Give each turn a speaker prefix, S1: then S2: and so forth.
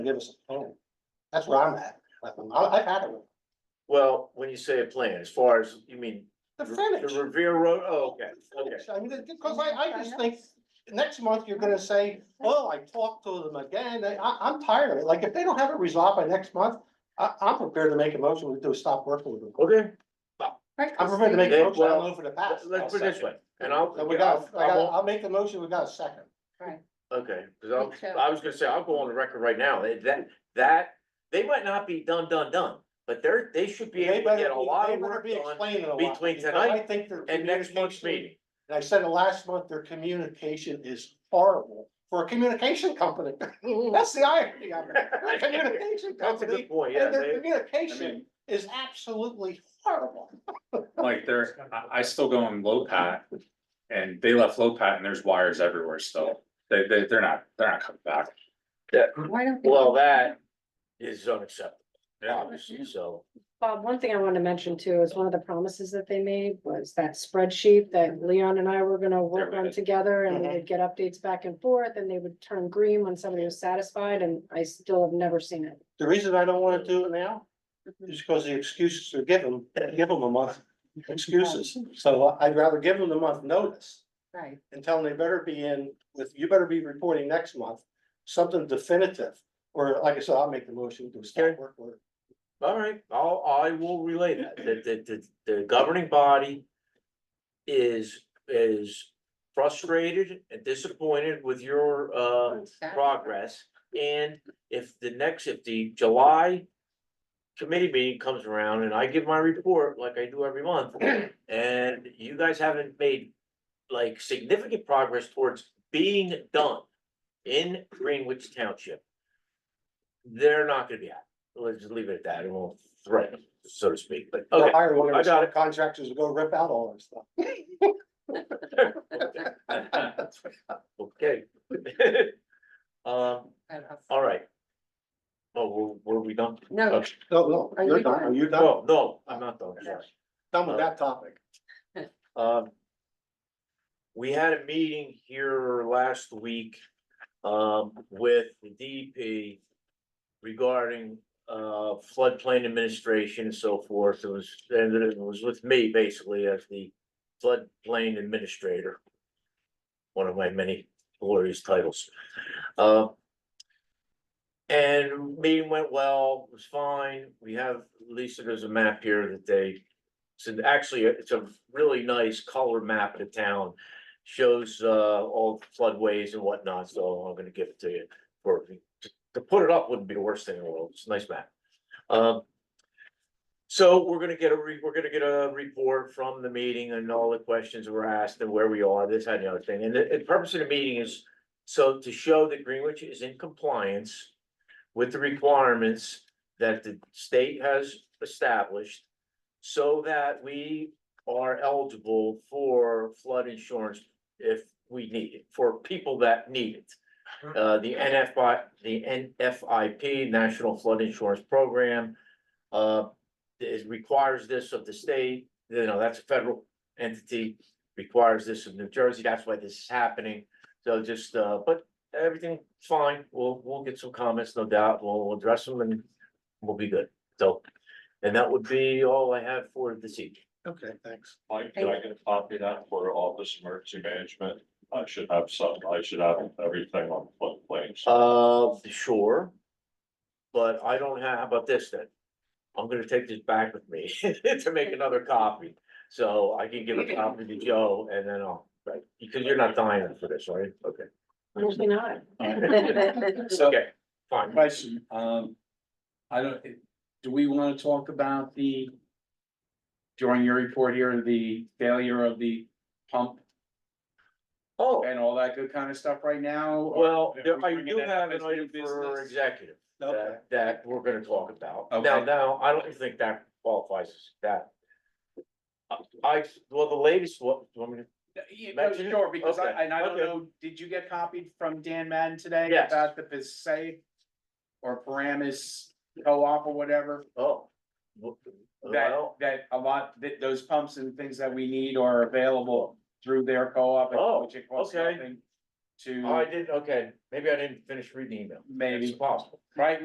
S1: give us a plan. That's where I'm at. I, I've had it with
S2: Well, when you say a plan, as far as, you mean,
S1: the
S2: the
S1: finish.
S2: Revere Road, oh, okay, okay.
S1: I mean, because I, I just think next month you're gonna say, oh, I talked to them again. I, I- I'm tired of it. Like, if they don't have it resolved by next month, I, I'm prepared to make a motion to do, stop working with them.
S2: Okay,
S1: I'm prepared to make a
S2: Yeah,
S1: motion
S2: well,
S1: all over the past.
S2: let's put it this way, and I'll,
S1: So we got, I
S2: I
S1: got,
S2: won't-
S1: I'll make the motion. We got a second.
S2: okay,
S3: Me
S2: cause
S3: too.
S2: I'll, I was gonna say, I'll go on the record right now, that- that, that, they might not be done, done, done. But they're, they should be
S1: They
S2: able to
S1: better,
S2: get a
S1: be-
S2: lot
S1: they
S2: of
S1: better
S2: work
S1: be
S2: done
S1: explaining a lot.
S2: between
S1: because I
S2: tonight
S1: think their
S2: and next month's
S1: communication-
S2: meeting.
S1: And I said it last month, their communication is horrible for a communication company. That's the irony of it. They're a communication
S2: That's a good
S1: company
S2: point, yeah,
S1: and their
S2: they,
S1: communication is absolutely horrible.
S4: Like they're, I, I still go in low pat and they left low pat and there's wires everywhere still. They, they, they're not, they're not coming back.
S3: Why don't?
S2: well, that is unacceptable,
S4: Yeah.
S2: obviously, so.
S5: Bob, one thing I want to mention too is one of the promises that they made was that spreadsheet that Leon and I were gonna work on together and we
S1: Mm-hmm.
S5: would get updates back and forth and they would turn green when somebody was satisfied and I still have never seen it.
S1: The reason I don't wanna do it now is because the excuses are given, give them a month excuses. So I'd rather give them the month notice
S3: Right,
S1: and tell them they better be in with, you better be reporting next month, something definitive. Or like I said, I'll make the motion to start work order.
S2: All right, I'll, I will relay that, that, that, that the governing body is, is frustrated and disappointed with your, uh, progress. And if the next, if the July committee meeting comes around and I give my report like I do every month, and you guys haven't made like significant progress towards being done in Greenwich Township, they're not gonna be happy. Let's just leave it at that. It won't threaten, them, so to speak, but
S1: Or
S2: okay.
S1: Hire one
S2: I
S1: of
S2: got
S1: those contractors to go rip out all this stuff.
S2: Okay. Um,
S1: uh,
S2: all right. Oh, were, were we done?
S3: no,
S2: Okay.
S1: No, no,
S3: Are
S1: you're
S3: you
S1: done.
S3: done?
S1: Are you done?
S2: No, no, I'm not done, sorry.
S1: Done with that topic.
S2: Um. We had a meeting here last week, um, with the DEP. Regarding, uh, floodplain administration and so forth, it was, and it was with me basically as the floodplain administrator. One of my many glorious titles, uh. And meeting went well, it was fine, we have, Lisa, there's a map here that they so actually, it's a really nice color map of the town. Shows uh all floodways and whatnot, so I'm gonna give it to you. For to put it up wouldn't be the worst thing in the world. It's a nice map. Um. So we're gonna get a re, we're gonna get a report from the meeting and all the questions that were asked and where we are, this, that, and the other thing. And the, the purpose of the meeting is. So to show that Greenwich is in compliance with the requirements that the state has established. So that we are eligible for flood insurance if we need it, for people that need it. Uh, the NFI, the NFIP, National Flood Insurance Program. Uh, is requires this of the state, you know, that's a federal entity, requires this of New Jersey, that's why this is happening. So just, uh, but everything's fine, we'll, we'll get some comments, no doubt, we'll address them and we'll be good, so. And that would be all I have for this evening.
S1: Okay, thanks.
S6: Mike, did I get a copy of that for all this emergency management? I should have some, I should have everything on floodplains.
S2: Uh, sure. But I don't have, how about this then? I'm gonna take this back with me to make another copy, so I can give a copy to Joe and then I'll, right, because you're not dying for this, right? Okay.
S5: Usually not.
S4: So,
S2: Okay, fine.
S4: question, um, I don't, do we want to talk about the during your report here, the failure of the pump
S2: Oh,
S4: and all that good kind of stuff right now? or-
S2: well,
S4: if
S2: there-
S4: we
S2: I
S4: bring it
S2: do
S4: up
S2: have an
S4: as new
S2: item for
S4: business?
S2: executive
S1: Okay.
S2: that, that we're gonna talk about. Now,
S4: Okay.
S2: now, I don't think that qualifies as that. I- I, well, the latest, what, you want me to
S4: Yeah, no,
S2: Mention it?
S4: sure, because
S2: Okay,
S4: I, and I don't
S2: okay.
S4: know, did you get copied from Dan Madden today
S2: Yes.
S4: about the Passaic? Or Paramus co-op or whatever,
S2: Oh. w-
S4: that,
S2: Well,
S4: that a lot, that those pumps and things that we need are available through their co-op.
S2: Oh,
S4: which it costs
S2: okay.
S4: nothing. to
S2: Oh, I didn't, okay, maybe I didn't finish reading the email.
S4: maybe,
S2: It's possible.
S4: right?